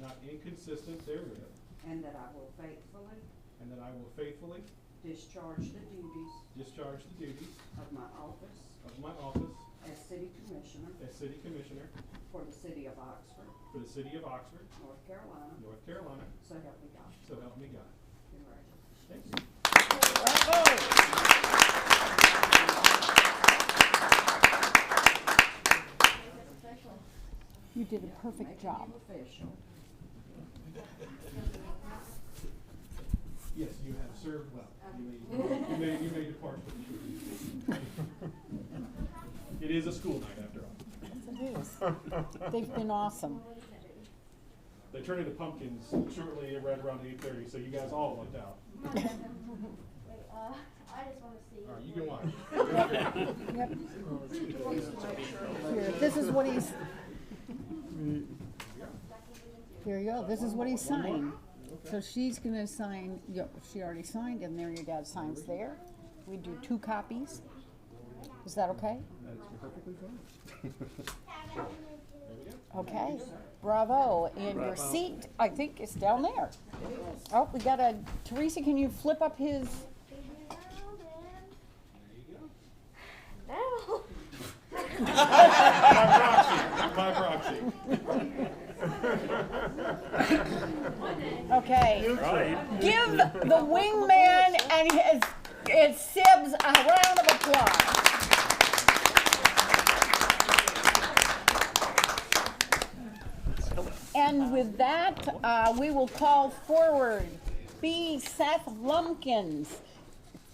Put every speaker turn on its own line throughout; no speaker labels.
not inconsistent therewith,
and that I will faithfully
and that I will faithfully
discharge the duties
discharge the duties
of my office
of my office
as city commissioner
as City Commissioner
for the city of Oxford,
for the City of Oxford,
North Carolina,
North Carolina,
so help me God.
so help me God.
Congratulations.
Thank you.
You did a perfect
Make it
job.
official.
Yes, you have served well. You may, you may, you may depart with the- It is a school night after all.
It is. They've been awesome.
They turn into pumpkins shortly around around eight thirty, so you guys all lucked out.
Wait, uh, I just wanna see.
All right, you can watch.
Yep. Here, this is what he's. Here you go, this is what he signed. So she's gonna sign, yo, she already signed, and there your dad signs there. We do two copies. Is that okay?
That is perfectly fine. There we go.
Okay, bravo, and your seat, I think, is down there. Oh, we got a, Teresa, can you flip up his,
No.
By proxy, by
okay. Give the wingman and his, his sibs a round of applause. And with that, uh, we will call forward B. Seth Lumpkins,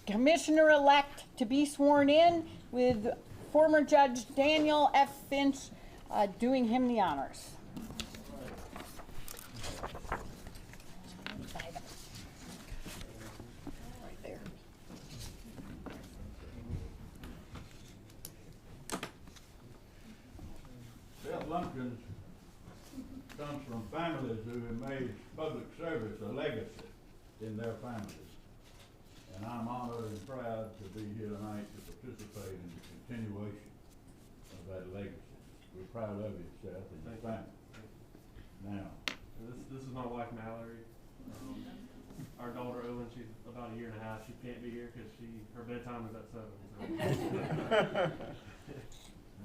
Commissioner-elect to be sworn in with former Judge Daniel F. Finch, uh, doing him the honors. Right there.
Bill Lumpkins comes from families who have made public service a legacy in their families. And I'm honored and proud to be here tonight to participate in the continuation of that legacy. We're proud of you, Seth, and your family. Now,
This, this is my wife Mallory. Um, our daughter Owen, she's about a year and a half. She can't be here because she her bedtime is at seven. So.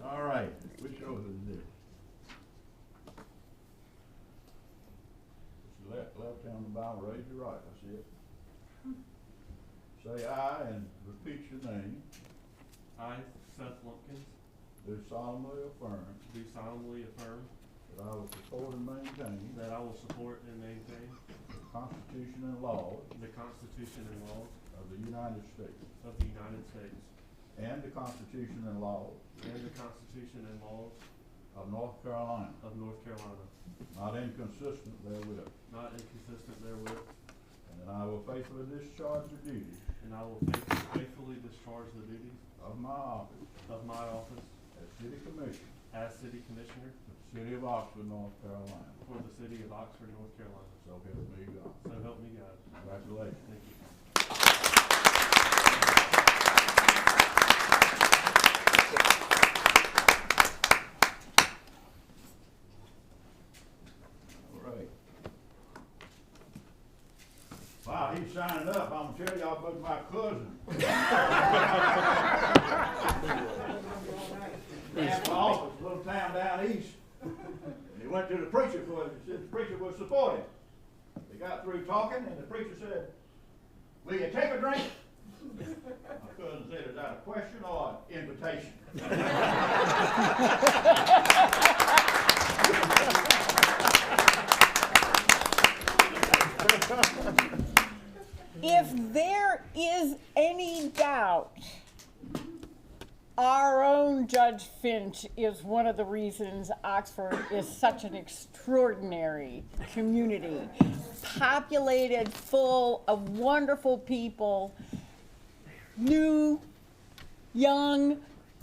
all right, which oath is this? Put your Left, left hand on the Bible, raise your right, that's it. Say aye and repeat your name.
I, Seth Lumpkins,
Do solemnly affirm
do solemnly affirm
that I will support and maintain
that I will support and maintain
the Constitution and laws
the Constitution and laws
of the United States
of the United States
and the Constitution and laws
and the Constitution and laws
of North Carolina,
of North Carolina,
not inconsistent therewith,
not inconsistent therewith,
and that I will faithfully discharge the duties
and I will faith- faithfully discharge the duties
of my office
of my office
as City Commissioner
as City Commissioner
of the City of Oxford, North Carolina.
for the City of Oxford, North Carolina.
So help me God.
So help me God.
Congratulations.
Thank you.
All right. Wow, he signed up. I'm gonna tell y'all about my cousin. Ran for office, a little town down east. And he went to the preacher for it, he said the preacher would support him. They got through talking and the preacher said, will you take a drink? My cousin said, is that a question or an invitation?
If there is any doubt, our own Judge Finch is one of the reasons Oxford is such an extraordinary community. Populated, full of wonderful people, new, young,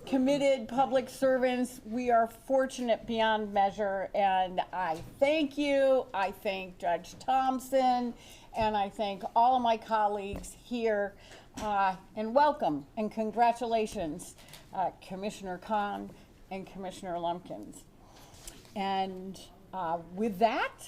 committed public servants. We are fortunate beyond measure, and I thank you. I thank Judge Thompson, and I thank all of my colleagues here. Uh, and welcome and congratulations, uh, Commissioner Khan and Commissioner Lumpkins. And uh, with that,